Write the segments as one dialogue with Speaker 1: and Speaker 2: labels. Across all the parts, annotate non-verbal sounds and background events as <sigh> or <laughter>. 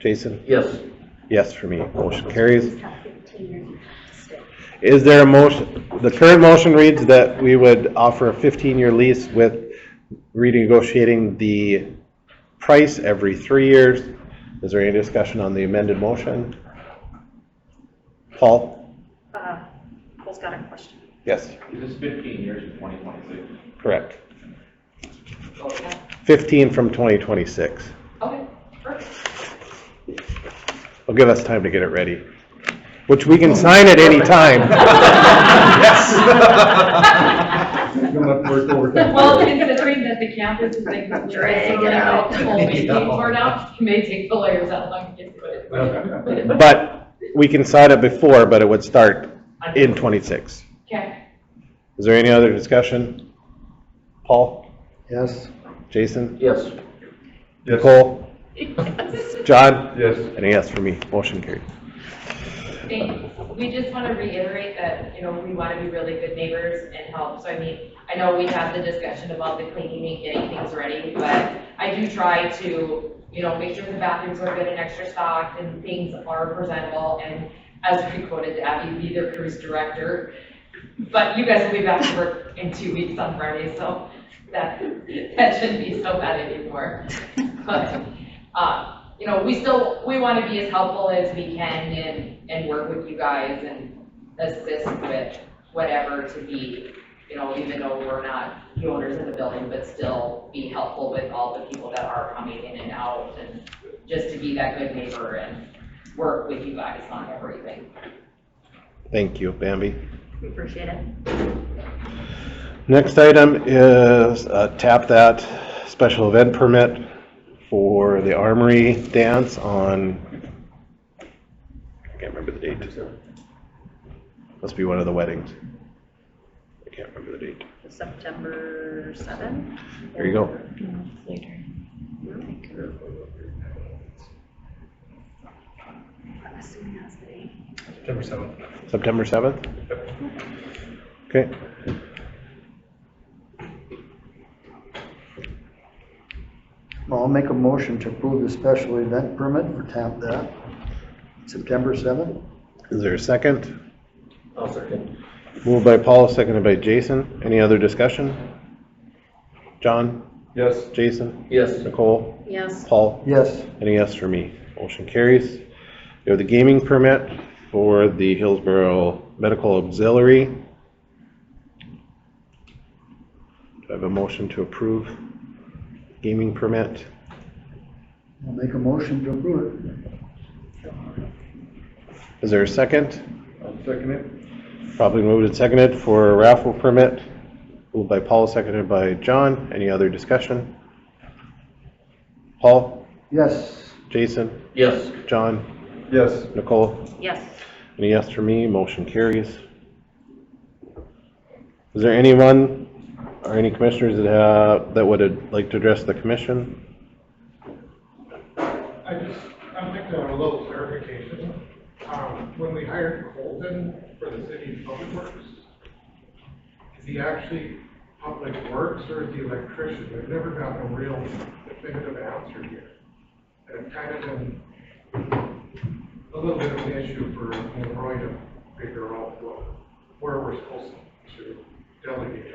Speaker 1: Jason?
Speaker 2: Yes.
Speaker 1: Yes for me. Motion carries. Is there a motion, the current motion reads that we would offer a fifteen-year lease with renegotiating the price every three years. Is there any discussion on the amended motion? Paul?
Speaker 3: Uh, Paul's got a question.
Speaker 1: Yes.
Speaker 4: Is this fifteen years to twenty twenty-six?
Speaker 1: Correct.
Speaker 3: Okay.
Speaker 1: Fifteen from twenty twenty-six.
Speaker 3: Okay, perfect.
Speaker 1: Will give us time to get it ready, which we can sign at any time. <laughs>
Speaker 5: Well, considering that the campus is being
Speaker 3: Drag
Speaker 5: completely
Speaker 3: it out.
Speaker 5: torn out, you may take the layers out long it gets rid of it.
Speaker 1: But we can sign it before, but it would start in twenty-six.
Speaker 5: Okay,
Speaker 1: Is there any other discussion? Paul?
Speaker 2: Yes.
Speaker 1: Jason?
Speaker 2: Yes.
Speaker 1: Nicole? John?
Speaker 4: Yes.
Speaker 1: And a yes for me. Motion carried.
Speaker 5: thanks. We just want to reiterate that, you know, we want to be really good neighbors and help. So I mean, I know we had the discussion about the cleaning and getting things ready, but I do try to, you know, make sure the bathrooms are good and extra stocked and things are presentable. And as we quoted Abby, be their cruise director. But you guys will be back to work in two weeks on Friday, so that, that shouldn't be so bad anymore. But, uh, you know, we still, we want to be as helpful as we can and, and work with you guys and assist with whatever to be, you know, even though we're not the owners of the building, but still be helpful with all the people that are coming in and out and just to be that good neighbor and work with you guys on everything.
Speaker 1: Thank you, Bambi.
Speaker 3: We appreciate it.
Speaker 1: Next item is uh, tap that special event permit for the Armory Dance on, I can't remember the date. Must be one of the weddings. I can't remember the date.
Speaker 3: September 7?
Speaker 1: There you go.
Speaker 3: Later. I'm assuming that's the date.
Speaker 4: September seventh.
Speaker 1: September 7th? Okay.
Speaker 6: <laughs> Well, I'll make a motion to approve the special event permit for Tap That, September 7th.
Speaker 1: Is there a second?
Speaker 2: I'll second.
Speaker 1: Moved by Paul, seconded by Jason. Any other discussion? John,
Speaker 4: Yes.
Speaker 1: Jason,
Speaker 2: Yes.
Speaker 1: Nicole,
Speaker 3: Yes.
Speaker 1: Paul,
Speaker 6: Yes,
Speaker 1: any yes for me? Motion carries. We have the gaming permit for the Hillsborough Medical Auxiliary. Do I have a motion to approve gaming permit?
Speaker 6: I'll make a motion to approve it.
Speaker 1: Is there a second?
Speaker 4: I'll second it.
Speaker 1: Probably moved and seconded for a raffle permit. Moved by Paul, seconded by John. Any other discussion? Paul,
Speaker 6: Yes,
Speaker 1: Jason,
Speaker 2: Yes.
Speaker 1: John?
Speaker 4: Yes.
Speaker 1: Nicole?
Speaker 3: Yes.
Speaker 1: Any yes for me? Motion carries. Is there anyone or any commissioners that have, that would like to address the commission?
Speaker 7: I just, I'm thinking of a little clarification. Um, when we hired Colton for the city public works, is he actually public works or is he electrician? We've never gotten a real definitive answer here. And it's kind of been a little bit of an issue for you know, Roy to figure out what, where we're supposed to delegate.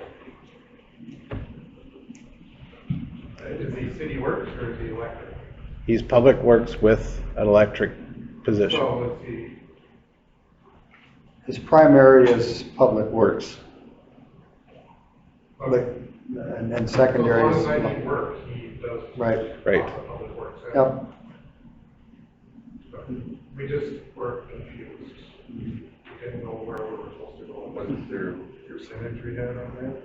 Speaker 7: Uh, Is he city works or is he elected?
Speaker 1: He's Public Works with an electric position.
Speaker 7: So let's see,
Speaker 6: his primary is public works, but,
Speaker 7: okay,
Speaker 6: and then
Speaker 7: so as
Speaker 6: secondary
Speaker 7: long as I need
Speaker 6: is,
Speaker 7: work, he does.
Speaker 6: right,
Speaker 1: Right.
Speaker 7: Public works.
Speaker 6: yep,
Speaker 7: We just were confused. We didn't know where we were supposed to go. What is their percentage we had on that?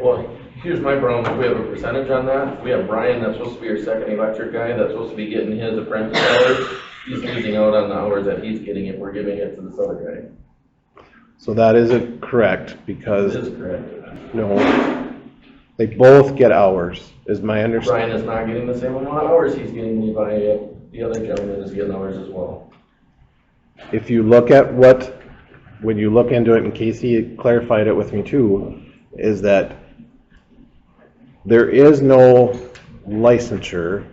Speaker 2: Well, here's my problem, we have a percentage on that, we have Brian, that's supposed to be your second electric guy, that's supposed to be getting his apprentice hours. He's losing out on the hours that he's getting if we're giving it to this other
Speaker 1: So that isn't correct
Speaker 2: guy.
Speaker 1: because,
Speaker 2: This is correct.
Speaker 1: no, they both get hours, is my
Speaker 2: Brian
Speaker 1: understanding.
Speaker 2: is not getting the same amount of hours he's getting Levi, the other gentleman is getting hours as well.
Speaker 1: If you look at what, when you look into it, and Casey clarified it with me too, is that there is no licensure